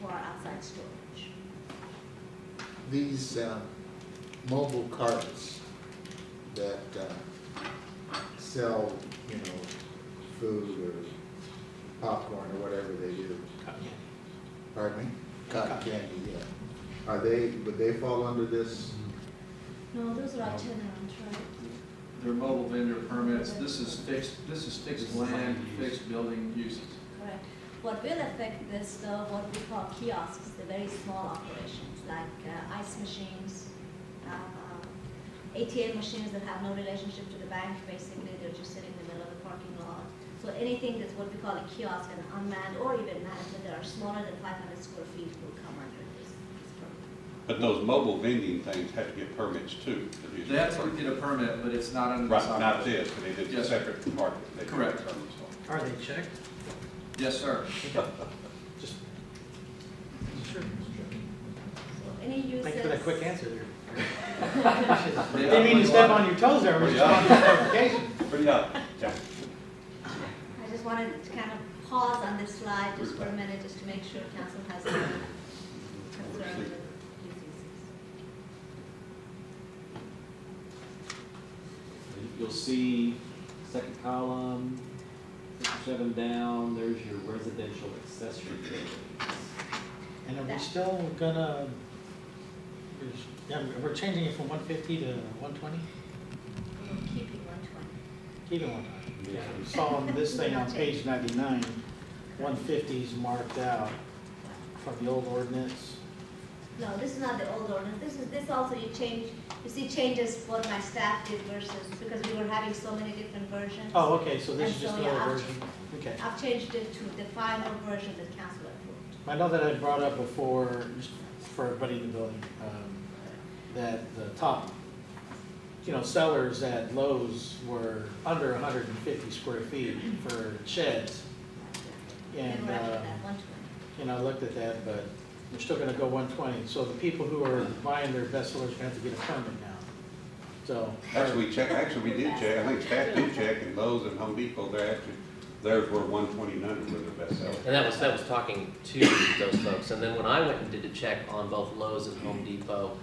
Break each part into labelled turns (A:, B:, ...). A: for outside storage.
B: These uh, mobile carts that uh, sell, you know, food or popcorn or whatever they do, pardon me? Cotton
C: Cotton.
B: candy, yeah. Are they, would they fall under this?
A: No, those are itinerant, right?
D: They're mobile vendor permits, this is fixed, this is fixed land, fixed building uses.
A: Correct. What will affect this, though, what we call kiosks, the very small operations, like uh, ice machines, uh, ATM machines that have no relationship to the bank, basically, they're just sitting in the middle of the parking lot. So anything that's what we call a kiosk, an unmanned or even manned, but that are smaller than five hundred square feet will come under this, this program.
E: But those mobile vending things have to get permits too. to use.
D: They have to get a permit, but it's not under this.
E: Right, not
D: operation.
E: this, but it is a
D: Yes.
E: separate department. that can
D: Correct.
E: determine so.
C: Are they checked?
D: Yes, sir.
C: Just. Sure.
A: So any uses.
C: Thanks for that quick answer there.
D: They
C: Didn't mean to step on your toes there, we just wanted a clarification.
E: Pretty odd. Yeah.
A: I just wanted to kind of pause on this slide just for a minute, just to make sure council has no concern with these uses.
F: You'll see, second column, six or seven down, there's your residential accessory buildings.
C: And are we still gonna, we're s- yeah, we're changing it from one fifty to one twenty?
A: Keeping one twenty.
C: Keep it one twenty.
F: Yeah.
C: We saw on this thing on page ninety-nine, one fifty's marked out from the old ordinance.
A: No, this is not the old ordinance, this is, this also you change, you see changes what my staff did versus, because we were having so many different versions.
C: Oh, okay, so this is
A: And
C: just
A: so,
C: the old
A: yeah, I'll-
C: version, okay.
A: I've changed it to the final version that council approved.
C: I know that I brought up before, just for everybody in the building, um, that the top, you know, sellers at Lowe's were under hundred and fifty square feet for sheds.
A: We
C: And,
A: were after
C: uh,
A: that, one twenty.
C: you know, I looked at that, but they're still gonna go one twenty, so the people who are buying their best sellers are gonna have to get a permit now. So.
E: Actually, we check, actually, we did check, I think staff did check, and Lowe's and Home Depot, they're actually, theirs were one twenty-nine were their best seller.
G: And that was, that was talking to those folks. And then when I went and did a check on both Lowe's and Home Depot,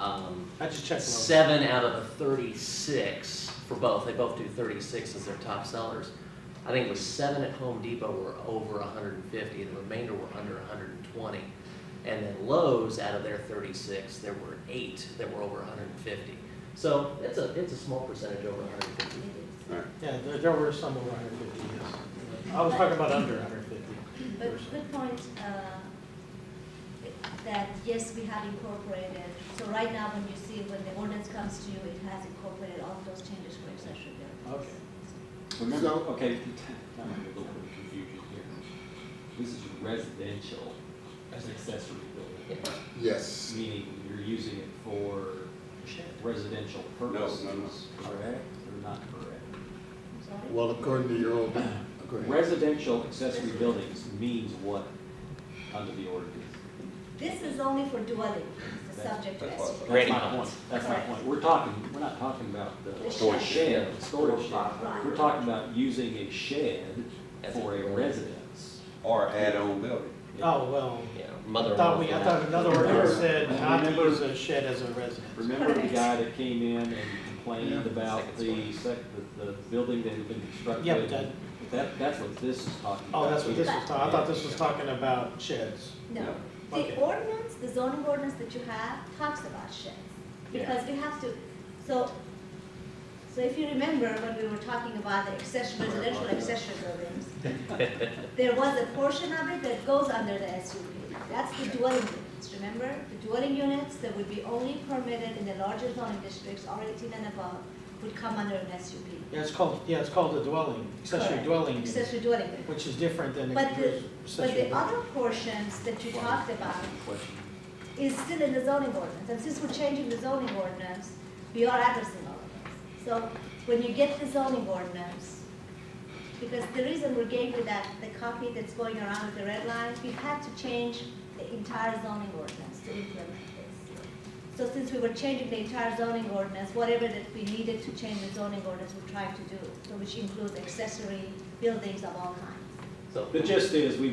G: um,
C: I just checked Lowe's.
G: seven out of the thirty-six for both, they both do thirty-six as their top sellers. I think it was seven at Home Depot were over hundred and fifty, and the remainder were under hundred and twenty. And then Lowe's, out of their thirty-six, there were eight that were over hundred and fifty. So it's a, it's a small percentage over hundred and fifty.
E: Right.
C: Yeah, there, there were some over hundred and fifty, yes. I was talking about under hundred fifty.
A: But good point, uh, that yes, we have incorporated, so right now when you see, when the ordinance comes to you, it has incorporated all of those changes for accessory buildings.
C: Okay.
F: Remember,
B: So-
F: okay, I'm a little bit confused here. This is residential as an accessory building,
B: Yes.
F: meaning you're using it for
C: Shed.
F: residential purposes.
E: No, no, no.
F: Correct or not correct?
A: I'm sorry?
B: Well, according to your old, according to
F: Residential accessory buildings means what under the ordinance?
A: This is only for dwelling, the subject
E: That's
A: is.
E: what-
G: Granny
F: That's my point,
G: comments.
F: that's my point. We're talking, we're not talking about
A: The
F: the
A: Storage
F: shed,
G: shed.
F: the storage shed.
A: Right.
F: We're talking about using a shed
G: As a-
F: for a residence.
E: Or add-on building.
C: Oh, well,
G: Yeah,
C: I
G: mother-in-law.
C: thought we, I thought another
F: Remember-
C: ordinance said not to
F: remember-
C: use a shed as a residence.
F: Remember the
A: Correct.
F: guy that came in and complained about
G: Second
F: the
G: story.
F: sec, the, the building that had been constructed?
C: Yeah, but that-
F: That, that's what this is talking about.
C: Oh, that's what this was talking, I thought this was talking about sheds.
A: No.
C: No.
A: The
C: Okay.
A: ordinance, the zoning ordinance that you have talks about sheds. Because we have to, so, so if you remember when we were talking about the accession, residential accession buildings, there was a portion of it that goes under the SUP. That's the dwelling units, remember? The dwelling units that would be only permitted in the larger zoning districts, R eighteen and above, would come under an SUP.
C: Yeah, it's called, yeah, it's called a dwelling, accessory
A: Correct.
C: dwelling,
A: Accessory dwelling unit.
C: which is different than
A: But the, but
C: accessory
A: the
C: dwelling.
A: other portions that you talked about
F: Question.
A: is still in the zoning ordinance, and since we're changing the zoning ordinance, we are addressing all of this. So when you get the zoning ordinance, because the reason we gave you that, the copy that's going around with the red line, we had to change the entire zoning ordinance to implement this. So since we were changing the entire zoning ordinance, whatever that we needed to change the zoning ordinance, we're trying to do, so which includes accessory buildings of all kinds.
G: So
F: The gist is, we've